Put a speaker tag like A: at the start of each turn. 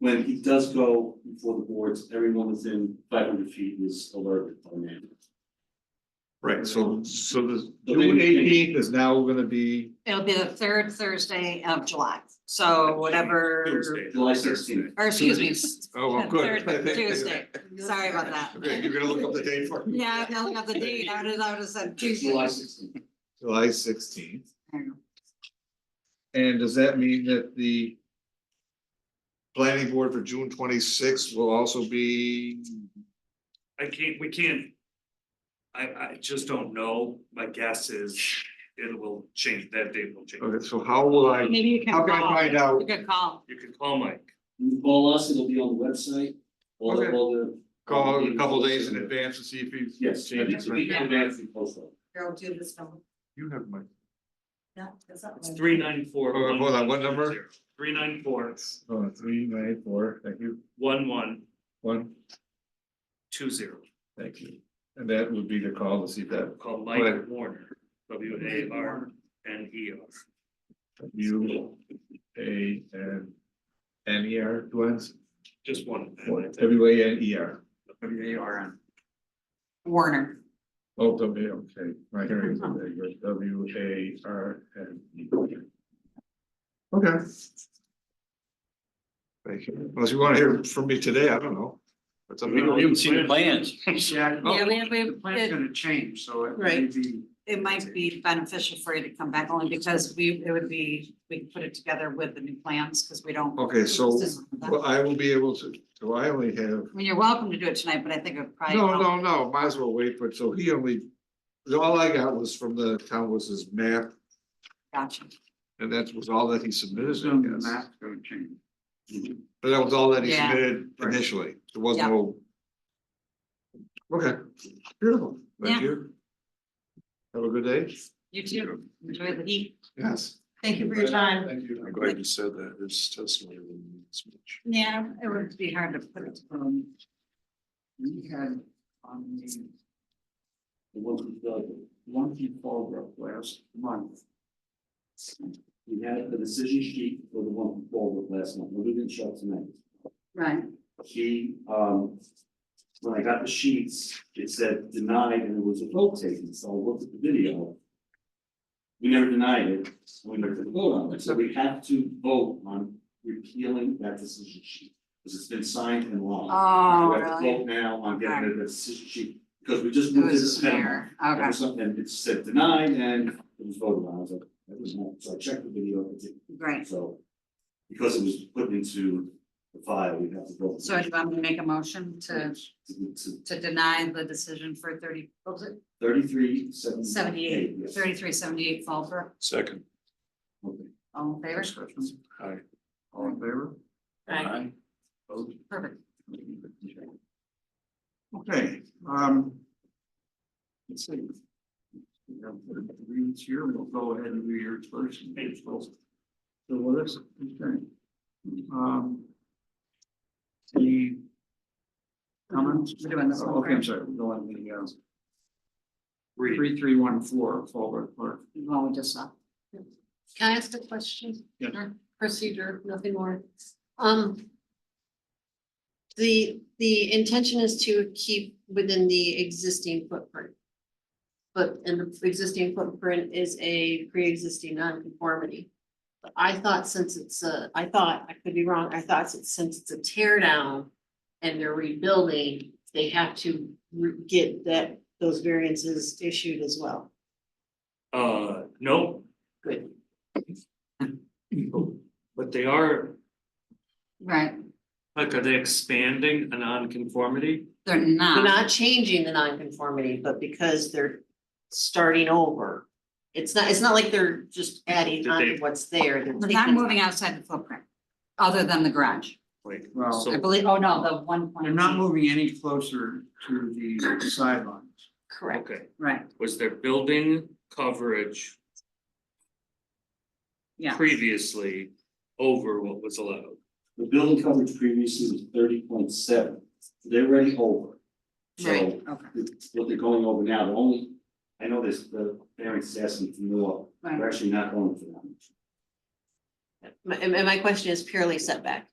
A: when he does go before the boards, everyone within five hundred feet is alerted by name.
B: Right, so, so the
A: The
B: June
A: big-
B: eighteenth is now gonna be,
C: It'll be the third Thursday of July, so whatever,
B: Tuesday.
A: July sixteenth.
C: or excuse me. s-
B: oh, I'm good.
C: Third Tuesday, sorry about that.
B: Okay, you're gonna look up the date for me.
C: Yeah, I look at the date, I would, I would have said
A: July
C: Tuesday.
A: sixteenth.
B: July sixteenth,
C: I don't know.
B: and does that mean that the planning board for June twenty-sixth will also be,
D: I can't, we can't. I I just don't know, my guess is it will change, that date will change.
B: okay, so how will I,
C: Maybe you can
B: how can I
C: call,
B: find out?
C: you could call,
D: You can call Mike,
A: You call us, it'll be on the website, all the,
B: Okay.
A: all the.
B: Call a couple days in advance to see if he's.
A: Yes,
B: Changes,
A: it's a week in
B: right?
A: advance we post that.
C: go do this number.
B: You have my,
C: No, that's not
D: it's
C: right.
D: three nine four.
B: Hold on, hold on, what number?
D: Three nine four,
B: oh, three, nine, four, thank you,
D: one one,
B: one,
D: two zero,
B: thank you. And that would be the call to see that
D: call
B: Right.
D: Mike Warner, W A R N E R.
B: U, A, and N E R, Glenn's,
D: Just one.
B: W A N E R.
D: W A R N.
C: Warner.
B: Oh, W, okay, my hearing is a bit good. W A R N E. Okay. Thank you, unless you wanna hear from me today, I don't know. That's up to you.
D: haven't seen the plans.
E: Yeah,
B: Oh.
C: Yeah, we have, we
E: the plan's
C: have, it,
E: gonna change, so it may
C: Right.
E: be,
C: it might be beneficial for you to come back only because we, it would be, we can put it together with the new plans, because we don't.
B: Okay, so, well,
C: I
B: I will be able to, so I only have,
C: mean, you're welcome to do it tonight, but I think it would probably.
B: no, no, no, might as well wait, but so he only. All I got was from the town was his map,
C: Gotcha.
B: and that was all that he submitted,
E: soon
B: I
E: the
B: guess.
E: map's gonna change.
B: But that was all that he
C: Yeah.
B: submitted initially, there was
C: Yeah.
B: no. Okay, beautiful,
C: Yeah.
B: thank you. Have a good day.
C: You too. Enjoy the heat.
B: Yes.
C: Thank you for your time.
B: Thank you.
C: I'm glad
B: you said that, it's testimony means much.
C: Yeah, it would be hard to put it.
E: Um, We had on the
A: um, The one from the,
E: Lumpy Fallbrook last month,
A: we had the decision sheet for the one from Baldwin last month, we didn't show it tonight.
C: Right.
A: He, um, when I got the sheets, it said denied and there was a vote taken, so I looked at the video. We never denied it, so we never took a vote on it, so we have to vote on repealing that decision sheet. Because it's been signed and law. We
C: Oh,
A: have to
C: really?
A: vote now on getting rid of the decision sheet, because we just moved
C: It
A: to
C: was
A: this panel.
C: there.
A: And
C: Okay.
A: for something, and it said denied and it was voted on, I was like, that was not, so I checked the video, it didn't,
C: Great.
A: so. Because it was put into the file, we have to vote.
C: So do you want me to make a motion to,
A: To- to
C: to deny the decision for thirty, what was it?
A: Thirty-three, seventy.
C: Seventy-eight, thirty-three, seventy-eight Fallbrook.
D: Second.
C: All in favor?
E: all in favor?
C: Perfect.
E: Okay, um. Let's see. We have the Reeds here, we'll go ahead and do yours first. and yours first. So what is, okay. Um. The. Comments?
C: We're doing this one
E: Okay, I'm
C: first.
E: sorry, we're going to the, uh,
D: Read.
E: three, three, one, four, forward, clerk.
C: Well, we just saw.
F: Can I ask a question?
E: Yeah.
F: Or Procedure, nothing more. Um. The, the intention is to keep within the existing footprint. But, and the existing footprint is a pre-existing non-conformity. But I thought since it's a, I thought, I could be wrong, I thought since since it's a tear down and they're rebuilding, they have to re- get that, those variances issued as well.
D: Uh, no,
F: Good.
D: but they are,
C: Right,
D: like, are they expanding a nonconformity?
C: they're
F: They're
C: not.
F: not changing the nonconformity, but because they're starting over. It's not, it's not like they're just adding
D: Did
F: on to
D: they-
F: what's there. They're
C: They're not
F: taking-
C: moving outside the footprint, other than the garage.
D: Like,
E: Well,
D: so-
C: I believe, oh no, the one point.
E: They're not moving any closer to the sidelines.
F: Correct.
D: okay,
C: Right,
D: was there building coverage
C: yeah.
D: previously over what was allowed?
A: The building coverage previously was thirty point seven, they're already over.
C: Right,
A: So
C: okay.
A: it's what they're going over now, the only, I know this, the variance is asking for more,
C: Right.
A: they're actually not going for that. much.
F: My- And and my question is purely setback.